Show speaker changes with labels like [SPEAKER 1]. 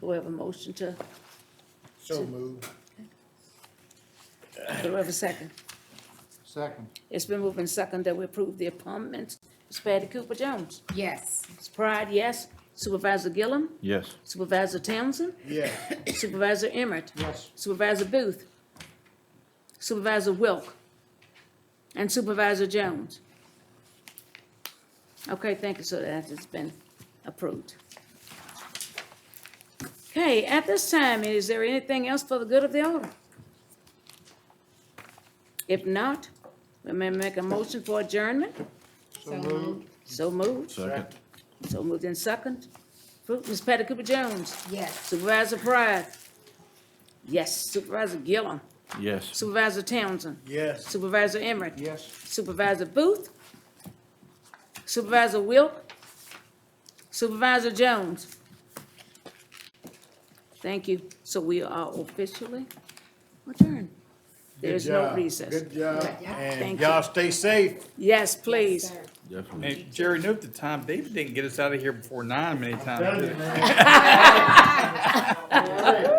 [SPEAKER 1] Do we have a motion to,
[SPEAKER 2] So moved.
[SPEAKER 1] do we have a second?
[SPEAKER 2] Second.
[SPEAKER 1] It's been moved and second that we approve the appointments. Ms. Patty Cooper Jones.
[SPEAKER 3] Yes.
[SPEAKER 1] Ms. Pride, yes. Supervisor Gillum.
[SPEAKER 4] Yes.
[SPEAKER 1] Supervisor Townsend.
[SPEAKER 2] Yes.
[SPEAKER 1] Supervisor Emmett.
[SPEAKER 2] Yes.
[SPEAKER 1] Supervisor Booth. Supervisor Wilk. And Supervisor Jones. Okay, thank you, so that has been approved. Okay, at this time, is there anything else for the good of the order? If not, we may make a motion for adjournment.
[SPEAKER 2] So moved.
[SPEAKER 1] So moved,
[SPEAKER 4] Second.
[SPEAKER 1] so moved in second. Ms. Patty Cooper Jones.
[SPEAKER 3] Yes.
[SPEAKER 1] Supervisor Pride. Yes, Supervisor Gillum.
[SPEAKER 4] Yes.
[SPEAKER 1] Supervisor Townsend.
[SPEAKER 2] Yes.
[SPEAKER 1] Supervisor Emmerich.
[SPEAKER 2] Yes.
[SPEAKER 1] Supervisor Booth. Supervisor Wilk. Supervisor Jones. Thank you. So we are officially adjourned. There is
[SPEAKER 2] Good
[SPEAKER 1] no
[SPEAKER 2] job.
[SPEAKER 1] recess.
[SPEAKER 2] Good job,
[SPEAKER 3] Good job.
[SPEAKER 2] and
[SPEAKER 1] Thank
[SPEAKER 2] y'all stay safe.
[SPEAKER 1] Yes, please.
[SPEAKER 3] Sir.
[SPEAKER 4] Definitely.
[SPEAKER 5] And Jerry, note the time, David didn't get us out of here before nine many times. did he?
[SPEAKER 2] All right.